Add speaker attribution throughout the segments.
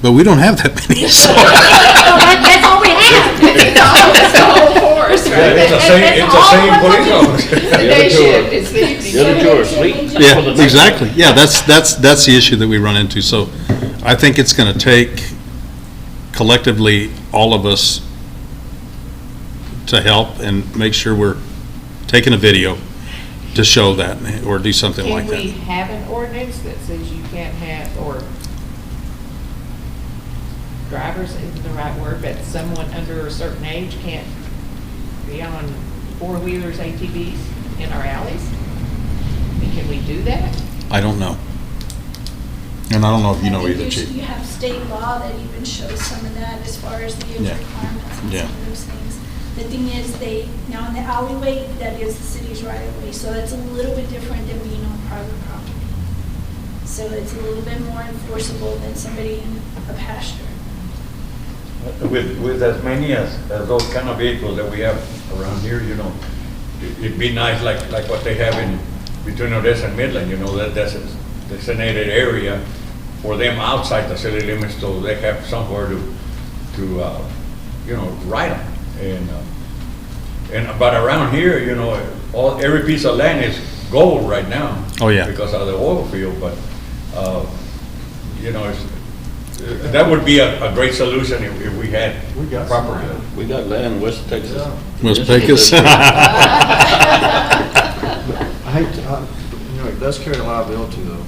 Speaker 1: But we don't have that many, so.
Speaker 2: Well, that- That's all we have.
Speaker 3: It's all, it's all forest, right?
Speaker 4: It's the
Speaker 2: That-
Speaker 4: same,
Speaker 2: that's
Speaker 4: it's the
Speaker 2: all
Speaker 4: same
Speaker 2: we're
Speaker 4: police
Speaker 2: looking-
Speaker 4: officer.
Speaker 3: The day shift, it's the evening.
Speaker 5: The other two are asleep.
Speaker 1: Yeah, exactly. Yeah, that's, that's, that's the issue that we run into. So I think it's going to take collectively, all of us to help and make sure we're taking a video to show that or do something like
Speaker 3: Can we
Speaker 1: that.
Speaker 3: have an ordinance that says you can't have, or drivers isn't the right word, but someone under a certain age can't be on four-wheelers, ATVs in our alleys? I mean, Can we do that?
Speaker 1: I don't know. And I don't know if you know either,
Speaker 6: You- You
Speaker 1: Chief.
Speaker 6: have state law that even shows some of that as far as the age
Speaker 1: Yeah.
Speaker 6: requirements and
Speaker 1: Yeah.
Speaker 6: some of those things. The thing is, they, now in the alleyway, that is the city's right of way, so that's a little bit different than being on private property. So it's a little bit more enforceable than somebody in a pasture.
Speaker 4: With, with as many as, as those kind of vehicles that we have around here, you know, it- it'd be nice like, like what they have in, between Odessa and Midland, you know, that, that's a designated area for them outside the city limits, so they have somewhere to, to, uh, you know, ride them. And, uh, and, but around here, you know, all, every piece of land is gold right now.
Speaker 1: Oh, yeah.
Speaker 4: Because of the oil field, but, uh, you know, it's, that would be a, a great solution if, if we had
Speaker 7: We got some
Speaker 4: proper. uh,
Speaker 7: land.
Speaker 5: We got land in West Texas.
Speaker 1: Ms.
Speaker 5: Yes,
Speaker 1: Pecos?
Speaker 7: I hate to, I- you know, it does carry a liability though.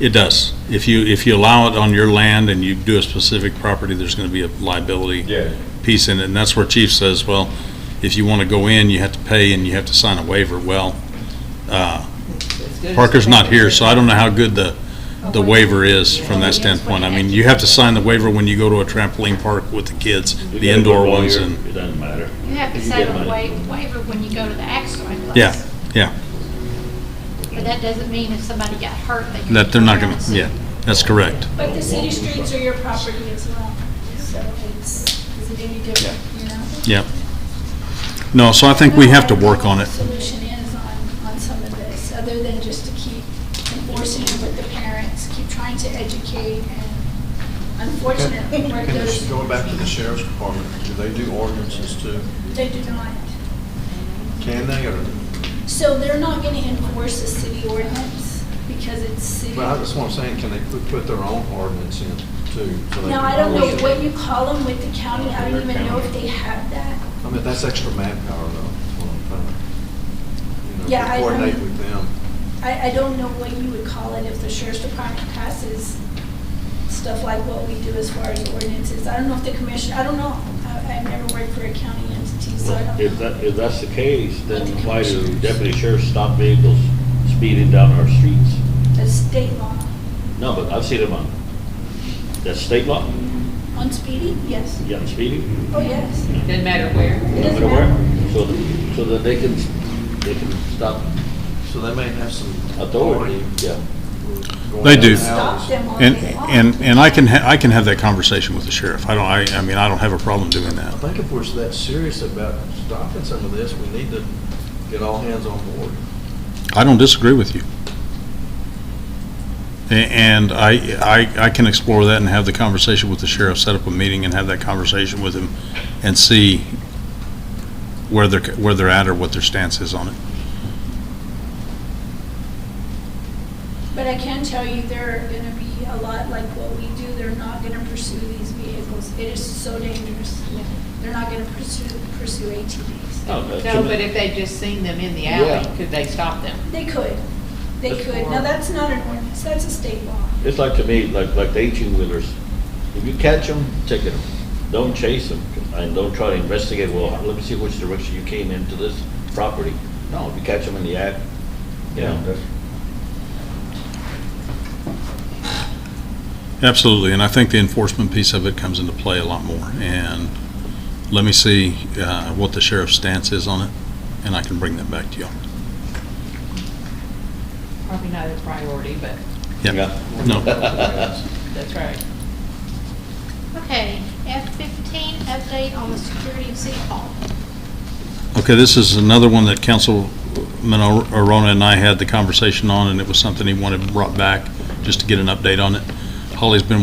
Speaker 1: It does. If you, if you allow it on your land and you do a specific property, there's going to be a liability.
Speaker 4: Yeah.
Speaker 1: piece in it, and that's where Chief says, well, if you want to go in, you have to pay and you have to sign a waiver. Well, uh,
Speaker 3: As good as-
Speaker 1: Parker's not here, so I don't know how good the, the waiver is from that standpoint. I mean, you have to sign the waiver when you go to a trampoline park with the kids,
Speaker 5: We
Speaker 1: the
Speaker 5: got a
Speaker 1: indoor
Speaker 5: good
Speaker 1: ones
Speaker 5: lawyer.
Speaker 1: and,
Speaker 5: It doesn't matter.
Speaker 2: You have to
Speaker 5: You get
Speaker 2: sign a
Speaker 5: money.
Speaker 2: wa- waiver when you go to the accident place.
Speaker 1: yeah, yeah,
Speaker 2: But that doesn't mean if somebody got hurt, they can.
Speaker 1: that they're not
Speaker 2: turn
Speaker 1: going
Speaker 2: around
Speaker 1: to,
Speaker 2: and
Speaker 1: yeah,
Speaker 2: sue.
Speaker 1: that's correct.
Speaker 6: But the city streets are your property as well, so it's, is it any different, you know?
Speaker 1: Yeah. No, so I think we have to work on it.
Speaker 6: Solution is on, on some of this, other than just to keep enforcing it with the parents, keep trying to educate, and unfortunately,
Speaker 7: Can-
Speaker 6: where
Speaker 7: can this-
Speaker 6: those,
Speaker 7: Going back to the sheriff's department, do they do ordinances too?
Speaker 6: they do not.
Speaker 7: Can they or?
Speaker 6: So they're not gonna enforce a city ordinance because it's city.
Speaker 7: But I just want to say, can they put- put their own ordinance in too? so they
Speaker 6: Now,
Speaker 7: can
Speaker 6: I don't know
Speaker 7: enforce it?
Speaker 6: what you call them with the county, I don't even know if they have that.
Speaker 7: I mean, that's extra manpower though. is what I'm trying to- you know,
Speaker 6: Yeah, I-
Speaker 7: Coordinate with them.
Speaker 6: I, I don't know what you would call it if the sheriff's department passes stuff like what we do as far as ordinances. I don't know if the commission, I don't know. I, I've never worked for a county entity, so I don't
Speaker 5: If
Speaker 6: know.
Speaker 5: that, if that's the case, then why do deputy sheriffs stop vehicles speeding down our streets?
Speaker 6: The state law
Speaker 5: No, but I've seen them on, that's state law,
Speaker 6: on speeding, yes.
Speaker 5: you got speeding,
Speaker 6: Oh, yes.
Speaker 3: Doesn't matter where.
Speaker 6: It
Speaker 5: no
Speaker 6: doesn't
Speaker 5: matter where.
Speaker 6: matter.
Speaker 5: So, so that they can, they can stop
Speaker 7: So they may have some
Speaker 5: authority, yeah.
Speaker 7: going
Speaker 1: They do.
Speaker 7: out of hours.
Speaker 6: Stop them all
Speaker 1: And,
Speaker 6: day long.
Speaker 1: and, and I can, ha- I can have that conversation with the sheriff. I don't, I, I mean, I don't have a problem doing
Speaker 7: I
Speaker 1: that.
Speaker 7: think if we're that serious about stopping some of this, we need to get all hands on board.
Speaker 1: I don't disagree with you. A- And I, I, I can explore that and have the conversation with the sheriff, set up a meeting and have that conversation with him and see where they're, where they're at or what their stance is on it.
Speaker 6: But I can tell you, there are gonna be a lot like what we do, they're not gonna pursue these vehicles. It is so dangerous. They're not gonna pursue, pursue ATVs.
Speaker 5: No, that's
Speaker 3: No,
Speaker 5: too
Speaker 3: but
Speaker 5: many-
Speaker 3: if they just seen them in the
Speaker 5: Yeah.
Speaker 3: alley, could they stop them?
Speaker 6: They could, they
Speaker 5: That's
Speaker 6: could.
Speaker 3: more-
Speaker 6: Now, that's not an ordinance, that's a state law.
Speaker 5: It's like to me, like, like the eighteen-wheelers, if you catch them, ticket them, don't chase them, and don't try to investigate, well, let me see which direction you came into this property. No, if you catch them in the act, you know,
Speaker 4: that's-
Speaker 1: Absolutely, and I think the enforcement piece of it comes into play a lot more. And let me see uh, what the sheriff's stance is on it, and I can bring that back to you.
Speaker 3: Probably not a priority, but
Speaker 1: Yeah, no,
Speaker 3: that's right.
Speaker 2: Okay, F fifteen, update on the security of City Hall.
Speaker 1: okay, this is another one that Councilman Ar- Arona and I had the conversation on, and it was something he wanted brought back, just to get an update on it. Holly's been